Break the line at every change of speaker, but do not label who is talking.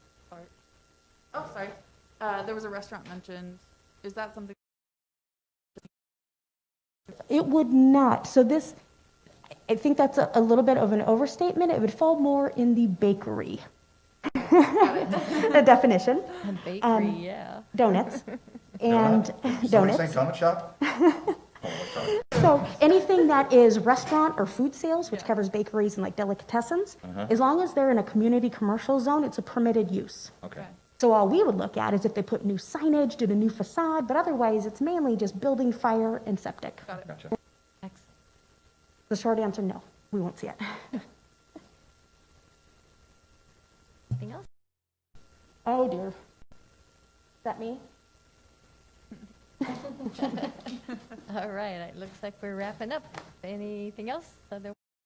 part. Oh, sorry. Uh, there was a restaurant mentioned. Is that something?
It would not. So this, I think that's a, a little bit of an overstatement. It would fall more in the bakery. the definition,
A bakery,
Um,
yeah.
donuts and
Somebody say
donuts.
donut shop? Oh, my God.
So anything that is restaurant or food sales, which
Yeah.
covers bakeries and like delicatessens, as long as they're in a community commercial zone, it's a permitted use.
Okay.
So all we would look at is if they put new signage, did a new facade, but otherwise it's mainly just building, fire, and septic.
Gotcha.
Excellent.
The short answer, no, we won't see it.
Anything else?
Oh dear. Is that me?
All right, it looks like we're wrapping up. Anything else? Other-